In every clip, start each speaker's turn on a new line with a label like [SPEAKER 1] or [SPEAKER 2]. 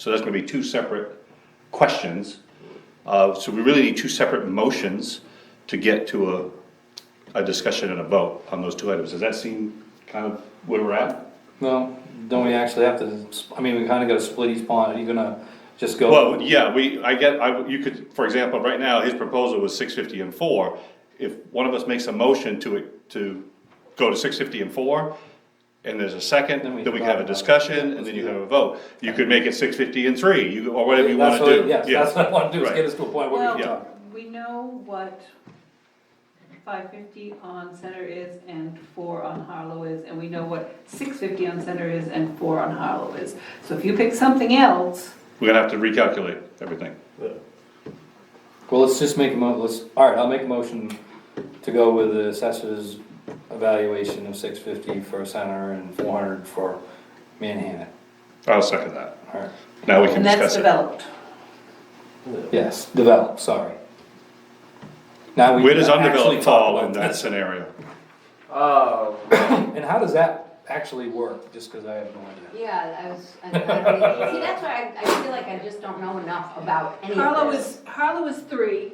[SPEAKER 1] So that's gonna be two separate questions. Uh, so we really need two separate motions to get to a, a discussion and a vote on those two items. Does that seem kind of where we're at?
[SPEAKER 2] No, don't we actually have to, sp- I mean, we kinda gotta split each pond, are you gonna just go,
[SPEAKER 1] Well, yeah, we, I get, I, you could, for example, right now, his proposal was six fifty and four. If one of us makes a motion to, it to go to six fifty and four, and there's a second,
[SPEAKER 2] Then we
[SPEAKER 1] then we
[SPEAKER 2] can
[SPEAKER 1] have a
[SPEAKER 2] vote.
[SPEAKER 1] discussion, and then you have a vote. You could make it six fifty and three, you, or whatever you wanna
[SPEAKER 2] that's
[SPEAKER 1] do.
[SPEAKER 2] what, yes,
[SPEAKER 1] Yeah.
[SPEAKER 2] that's what I wanna do, is
[SPEAKER 1] Right.
[SPEAKER 2] get us to a point where we can
[SPEAKER 1] yeah.
[SPEAKER 2] talk.
[SPEAKER 3] Well, we know what five fifty on Center is and four on Harlow is, and we know what six fifty on Center is and four on Harlow is. So if you pick something else,
[SPEAKER 1] We're gonna have to recalculate everything.
[SPEAKER 2] Well, let's just make a mo, let's, alright, I'll make a motion to go with the assessor's evaluation of six fifty for center and four hundred for Manhattan.
[SPEAKER 1] I'll second that.
[SPEAKER 2] Alright,
[SPEAKER 1] Now we can
[SPEAKER 3] and that's
[SPEAKER 1] discuss it.
[SPEAKER 3] developed.
[SPEAKER 2] yes, develop, sorry. Now we
[SPEAKER 1] Where does
[SPEAKER 2] can actually
[SPEAKER 1] undeveloped
[SPEAKER 2] talk
[SPEAKER 1] fall
[SPEAKER 2] about
[SPEAKER 1] in that scenario?
[SPEAKER 4] Oh,
[SPEAKER 2] And how does that actually work, just cause I have no idea.
[SPEAKER 5] Yeah, I was, I'm not really, see, that's why I, I feel like I just don't know enough about any of this.
[SPEAKER 3] Harlow is, Harlow is three,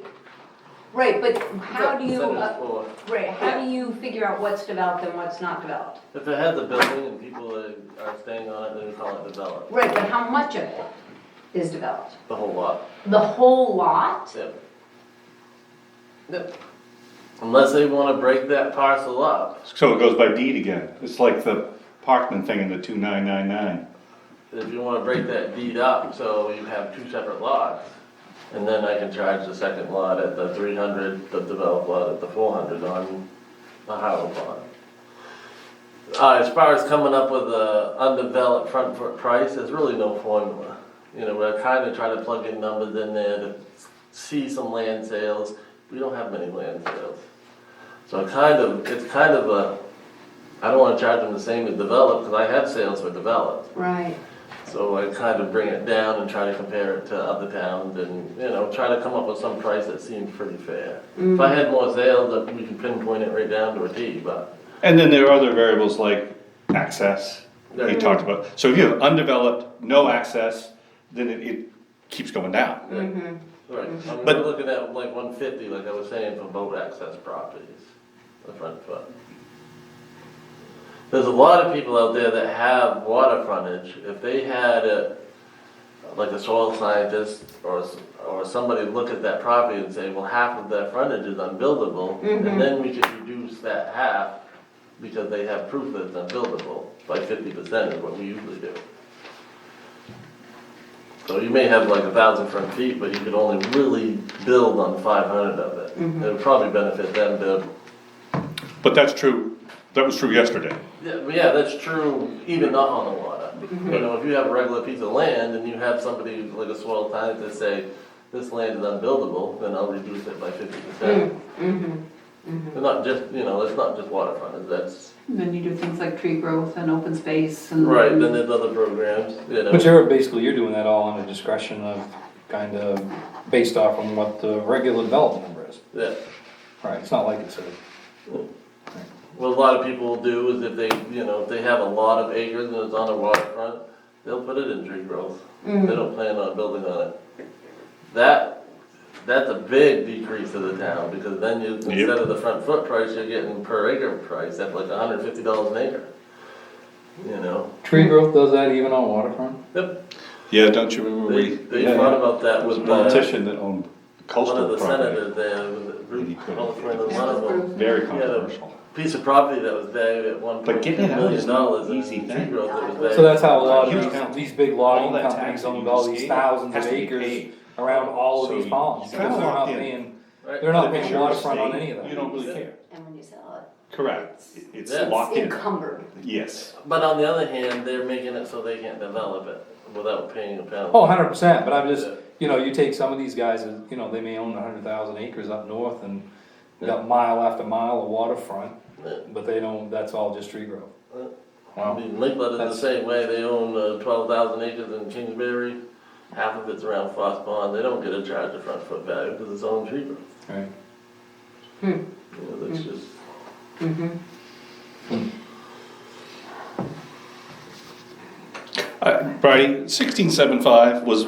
[SPEAKER 5] Right, but how do you,
[SPEAKER 4] Center
[SPEAKER 5] uh,
[SPEAKER 4] floor.
[SPEAKER 5] right, how do you figure out what's developed and what's not developed?
[SPEAKER 4] If it has a building and people are- are staying on it, then we call it developed,
[SPEAKER 5] Right, but how much of it is developed?
[SPEAKER 4] the whole lot.
[SPEAKER 5] The whole lot?
[SPEAKER 4] Yep. Yep. Unless they wanna break that parcel up,
[SPEAKER 1] So it goes by deed again. It's like the Parkman thing in the two nine nine nine.
[SPEAKER 4] if you wanna break that deed up, so you have two separate lots. And then I can charge the second lot at the three hundred, the developed lot at the four hundred on the Highland lot. Uh, as far as coming up with a undeveloped front foot price, there's really no formula. You know, we're trying to try to plug in numbers in there to see some land sales, we don't have many land sales. So I kind of, it's kind of a, I don't wanna charge them the same as developed, cause I have sales for developed.
[SPEAKER 5] Right.
[SPEAKER 4] So I kind of bring it down and try to compare it to other towns and, you know, try to come up with some price that seems pretty fair. If I had more sales, we could pinpoint it right down to a T, but
[SPEAKER 1] And then there are other variables like access, he
[SPEAKER 4] Right.
[SPEAKER 1] talked about. So if you have undeveloped, no access, then it, it keeps going down.
[SPEAKER 4] Right, I mean,
[SPEAKER 1] But-
[SPEAKER 4] we're looking at like one fifty, like I was saying, for boat access properties, the front foot. There's a lot of people out there that have water frontage, if they had a, like a soil scientist or, s- or somebody look at that property and say, well, half of that frontage is unbuildable, and then we could reduce that half, because they have proof that it's unbuildable, by fifty percent is what we usually do. So you may have like a thousand front feet, but you could only really build on five hundred of it. It would probably benefit them to,
[SPEAKER 1] But that's true, that was true yesterday.
[SPEAKER 4] yeah, but yeah, that's true, even not on the water. You know, if you have a regular piece of land and you have somebody like a soil scientist say, this land is unbuildable, then I'll reduce it by fifty percent. It's not just, you know, it's not just waterfront, that's,
[SPEAKER 3] And then you do things like tree growth and open space and.
[SPEAKER 4] right, then there's other programs, you know.
[SPEAKER 2] But you're basically, you're doing that all on the discretion of, kind of, based off on what the regular development number is.
[SPEAKER 4] Yeah.
[SPEAKER 2] Right, it's not like it's a,
[SPEAKER 4] What a lot of people will do is if they, you know, if they have a lot of acres and it's on a waterfront, they'll put it in tree growth.
[SPEAKER 1] Mm-hmm.
[SPEAKER 4] They don't plan on building on it. That, that's a big decrease to the town, because then you, instead of the front foot price, you're getting per acre price, that's like hundred fifty dollars an acre. You know,
[SPEAKER 2] tree growth does that even on waterfront?
[SPEAKER 4] yep,
[SPEAKER 1] Yeah, don't you remember
[SPEAKER 4] they,
[SPEAKER 1] we?
[SPEAKER 4] they
[SPEAKER 1] yeah,
[SPEAKER 4] thought
[SPEAKER 1] yeah.
[SPEAKER 4] about that
[SPEAKER 1] It was
[SPEAKER 4] with
[SPEAKER 1] a
[SPEAKER 4] the,
[SPEAKER 1] politician that owned
[SPEAKER 4] one of
[SPEAKER 1] coastal
[SPEAKER 4] the
[SPEAKER 1] property.
[SPEAKER 4] senators there, was it
[SPEAKER 1] He
[SPEAKER 4] Ruth,
[SPEAKER 1] put it-
[SPEAKER 4] Holtzman, was
[SPEAKER 3] That
[SPEAKER 4] one
[SPEAKER 3] was
[SPEAKER 4] of them.
[SPEAKER 3] Bruce.
[SPEAKER 1] Very
[SPEAKER 4] Yeah, the-
[SPEAKER 1] controversial.
[SPEAKER 4] Piece of property that was valued at one
[SPEAKER 1] But
[SPEAKER 4] point two
[SPEAKER 1] getting it out is
[SPEAKER 4] million
[SPEAKER 1] no
[SPEAKER 4] dollars, and
[SPEAKER 1] easy
[SPEAKER 4] tree
[SPEAKER 1] thing.
[SPEAKER 4] growth that was there.
[SPEAKER 2] So that's how a lot
[SPEAKER 1] Huge
[SPEAKER 2] of these,
[SPEAKER 1] amount.
[SPEAKER 2] these big
[SPEAKER 1] All
[SPEAKER 2] logging
[SPEAKER 1] that
[SPEAKER 2] companies
[SPEAKER 1] tax that
[SPEAKER 2] own
[SPEAKER 1] you
[SPEAKER 2] all these
[SPEAKER 1] escape
[SPEAKER 2] thousands
[SPEAKER 1] has
[SPEAKER 2] of
[SPEAKER 1] to be
[SPEAKER 2] acres
[SPEAKER 1] paid.
[SPEAKER 2] around all of
[SPEAKER 1] So
[SPEAKER 2] these
[SPEAKER 1] you-
[SPEAKER 2] ponds,
[SPEAKER 1] you're
[SPEAKER 2] they're not
[SPEAKER 1] locked in.
[SPEAKER 2] paying,
[SPEAKER 4] Right.
[SPEAKER 2] they're not
[SPEAKER 1] If it's
[SPEAKER 2] paying
[SPEAKER 1] your
[SPEAKER 2] waterfront on
[SPEAKER 1] estate,
[SPEAKER 2] any of that.
[SPEAKER 1] You don't really care.
[SPEAKER 5] And when you sell it,
[SPEAKER 1] Correct. It- It's
[SPEAKER 4] Yeah.
[SPEAKER 1] locked
[SPEAKER 5] it's
[SPEAKER 1] in,
[SPEAKER 5] encumbered.
[SPEAKER 1] yes.
[SPEAKER 4] But on the other hand, they're making it so they can't develop it without paying a penalty.
[SPEAKER 2] Oh, hundred percent, but I'm just,
[SPEAKER 4] Yeah.
[SPEAKER 2] you know, you take some of these guys, that, you know, they may own hundred thousand acres up north and they got mile after mile of waterfront,
[SPEAKER 4] Yeah.
[SPEAKER 2] but they don't, that's all just tree growth.
[SPEAKER 4] Yeah. I
[SPEAKER 2] Wow,
[SPEAKER 4] mean, Lakeland is the
[SPEAKER 2] That's-
[SPEAKER 4] same way, they own uh, twelve thousand acres in Kingsbury, half of it's around Foss Pond, they don't get a charge of front foot value because it's own tree growth.
[SPEAKER 2] right.
[SPEAKER 4] You know,
[SPEAKER 2] Hmm.
[SPEAKER 4] that's just,
[SPEAKER 1] I, Right, Uh, sixteen seven five was